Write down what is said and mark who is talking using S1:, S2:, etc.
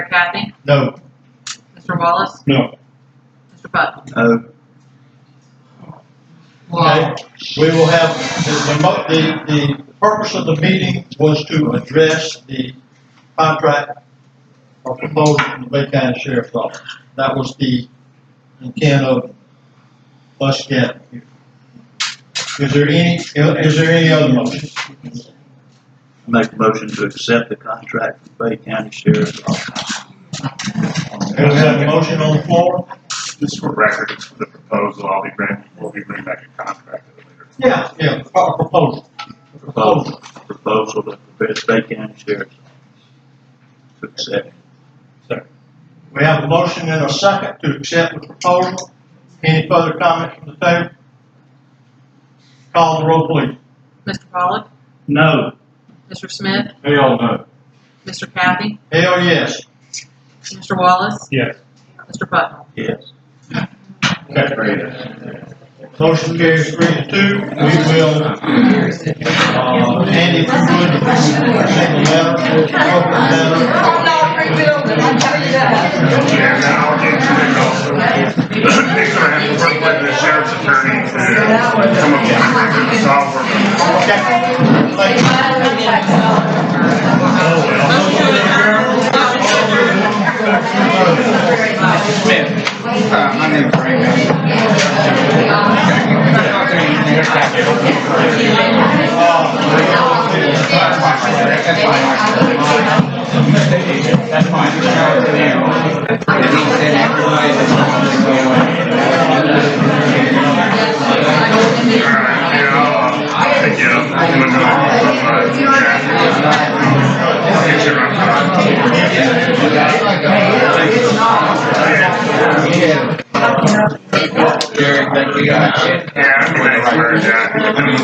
S1: Mr. Kathy?
S2: No.
S1: Mr. Wallace?
S2: No.
S1: Mr. Bud?
S3: No.
S1: Well,
S2: We will have, the- the, mo- the, the purpose of the meeting was to address the contract or proposal from the Bay County Sheriff's Office. That was the intent of us getting here. Is there any, is there any other motion?
S3: Make a motion to accept the contract with Bay County Sheriff's Office.
S2: Do we have a motion on the floor?
S4: Just for record, it's for the proposal, I'll be bringing, we'll be bringing back a contract at a later.
S2: Yeah, yeah, pro- proposal.
S3: Proposal, proposal that the Bay County Sheriff's Office to accept.
S2: We have a motion and a second to accept the proposal. Any further comments from the table? Call the roll, please.
S1: Mr. Pollock?
S3: No.
S1: Mr. Smith?
S2: Hell no.
S1: Mr. Kathy?
S2: Hell yes.
S1: Mr. Wallace?
S2: Yes.
S1: Mr. Bud?
S3: Yes.
S2: Motion carries three to two. We will, uh, Andy, if you would, send the letter, we'll open the letter.
S5: Whole lot of rebuilding, I tell you that.
S4: Yeah, now I'll get to it also. Next, I have to work with the sheriff's attorney to come up with a way to solve for them.
S2: Okay. Thank you.
S6: Uh, my name's Raymond. That's fine. That's fine. And he said everybody
S4: All right, yeah, I'll, I'll take you up. I'm gonna go on, uh, yeah. I'll get you around.
S6: Jerry, thank you.
S4: Yeah, I'm gonna, where is that?